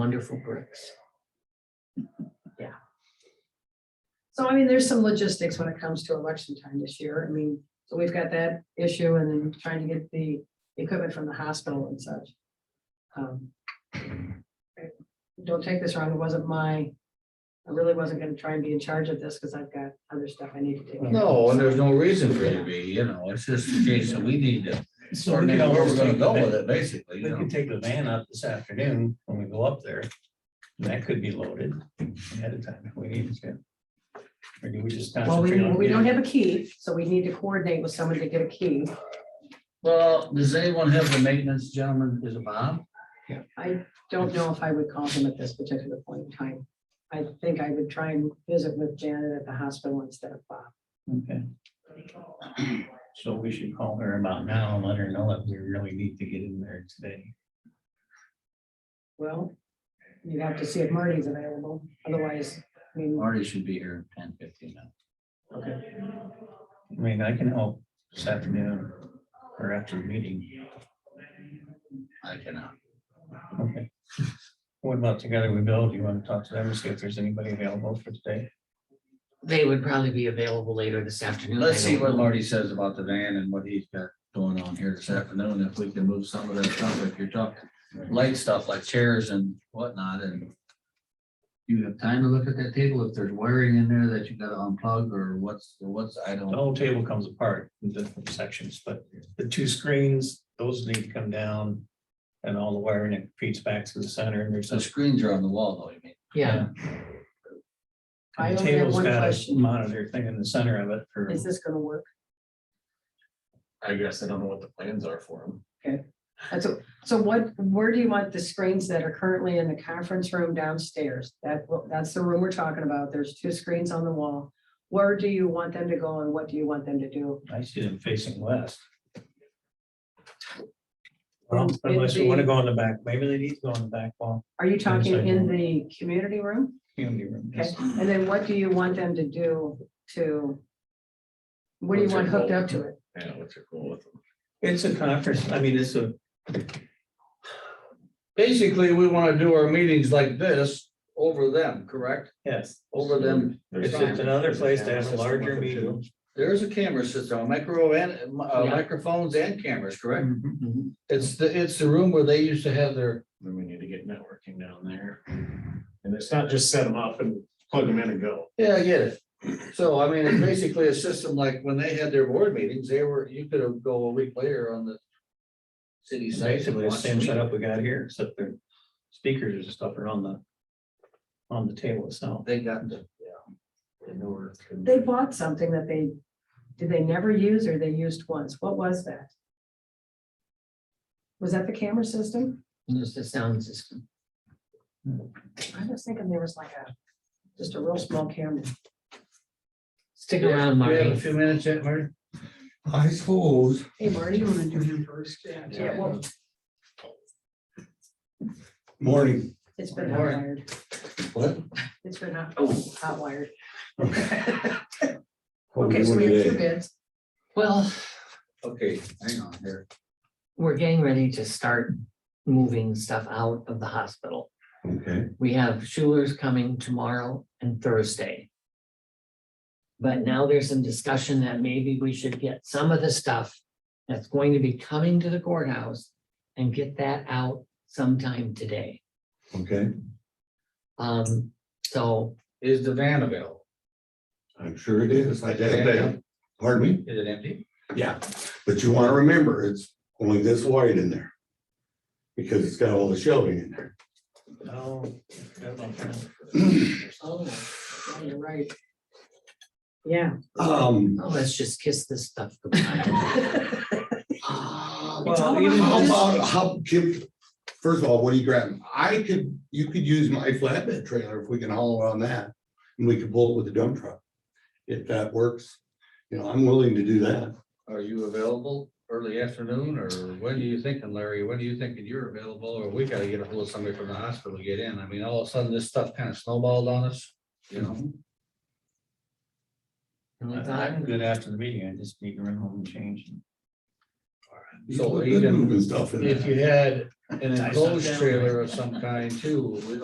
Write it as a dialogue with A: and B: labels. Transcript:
A: wonderful bricks. Yeah. So I mean, there's some logistics when it comes to election time this year. I mean, so we've got that issue and then trying to get the equipment from the hospital and such. Um, Don't take this wrong, it wasn't my, I really wasn't gonna try and be in charge of this because I've got other stuff I need to take. care of.
B: No, and there's no reason for you to be, you know, it's just a case that we need to
C: So
B: sort
C: we
B: of
C: could
B: know where
C: always
B: we're gonna
C: take the
B: go with
C: van-
B: it, basically,
C: we
B: you know.
C: could take the van out this afternoon when we go up there. and That could be loaded ahead of time if we need to. Or do we just
A: Well, we,
C: concentrate on?
A: we don't have a key, so we need to coordinate with someone to get a key.
B: Well, does anyone have the maintenance gentleman, is it Bob?
A: I don't know if I would call him at this particular point in time. I think I would try and visit with Janet at the hospital instead of Bob.
C: Okay. So we should call her about now and let her know that we really need to get in there today.
A: Well, you'd have to see if Marty's available, otherwise, I mean,
B: Marty should be here in ten fifteen now.
A: okay,
C: I mean, I can help this afternoon or after the meeting.
B: I cannot.
C: Okay. What about Together We Build? You want to talk to them and see if there's anybody available for today?
D: They would probably be available later this afternoon.
B: Let's
D: I
B: see
D: don't
B: what
D: know.
B: Marty says about the van and what he's got going on here this afternoon, if we can move some of that stuff, if you're talking light stuff like chairs and whatnot, and you have time to look at that table, if there's wiring in there that you gotta unplug, or what's, or what's, I
C: The
B: don't.
C: whole table comes apart in different sections, but the two screens, those need to come down. And all the wiring it feeds back to the center and there's
B: The
C: such.
B: screens are on the wall, though, you mean?
D: Yeah,
A: I only
C: The
A: have
C: table's
A: one
C: got a
A: question.
C: monitor thing in the center of it for,
A: is this gonna work?
E: I guess I don't know what the plans are for them.
A: That's, a- so what, where do you want the screens that are currently in the conference room downstairs? That, that's the room we're talking about, there's two screens on the wall. Where do you want them to go and what do you want them to do?
C: I see them facing west.
A: Um,
C: Well, unless you want to
A: it'd
C: go on the back, maybe they need to go on the back wall,
A: Are you talking in the community room?
C: community room.
A: Okay, and then what do you want them to do to? What do you
E: What's
A: want
E: your
A: hooked
E: goal?
A: up to it?
E: Yeah, what's your goal with them?
C: It's a conference, I mean, it's a,
B: Basically, we wanna do our meetings like this over them, correct?
C: yes,
B: Over them.
C: it's just another place to have a larger meeting.
B: There's a camera system, micro and uh, microphones and cameras, correct? Mm-hmm.
D: mhm.
C: Mm-hmm.
B: It's the, it's the room where they used to have their,
E: Then we need to get networking down there. And it's not just set them up and plug them in and go.
B: yeah, I get it. So I mean, it's basically a system like when they had their board meetings, they were, you could have go a week later on the city site. and
C: Basically, the
B: watch the
C: same
B: meeting.
C: setup we got here, except their speakers and stuff are on the, on the table itself.
B: They got the, yeah. They know where it's gonna be.
A: They bought something that they, did they never use or they used once? What was that? Was that the camera system?
D: There's the sound system.
A: I was thinking there was like a, just a real small camera.
D: Stick
B: Yeah,
D: around,
B: We have a
D: Marty.
B: few minutes yet, Marty?
F: I suppose,
A: Hey, Marty, you wanna do him first? Yeah, well,
F: morning,
A: it's been hot
B: Morning.
A: wired.
F: what?
A: It's been hot, oh, hot wired.
F: What we
A: Okay, so
F: doing
A: we have two
F: today?
A: bids.
D: Well,
B: Okay, hang on here.
D: we're getting ready to start moving stuff out of the hospital.
F: Okay,
D: We have Schuler's coming tomorrow and Thursday. But now there's some discussion that maybe we should get some of the stuff that's going to be coming to the courthouse and get that out sometime today.
F: okay,
D: Um, so
B: Is the van available?
F: I'm sure it is, I doubt that. pardon me?
B: Is it empty?
F: Yeah. But you wanna remember, it's only this wide in there. Because it's got all the shelving in there.
C: Oh. forgot about that.
A: Oh, yeah, you're right. Yeah.
F: Um,
D: oh, let's just kiss this stuff goodbye. Oh,
C: Well,
A: all
C: even
A: about
F: how
C: just-
F: about, how, Kim, first of all, what do you grab? I could, you could use my flatbed trailer if we can haul on that, and we could pull it with the dump truck. If that works, you know, I'm willing to do that.
B: Are you available early afternoon or when are you thinking, Larry? When are you thinking you're available or we gotta get a hold of somebody from the hospital to get in? I mean, all of a sudden this stuff kind of snowballed on us, you know?
D: my
C: I-
D: God.
C: I'm good after the meeting, I just need to run home and change.
B: So
F: Put the
B: even
F: moving stuff in there.
B: If you had an
C: Tie stuff
B: enclosed
C: down.
B: trailer of some kind too, we-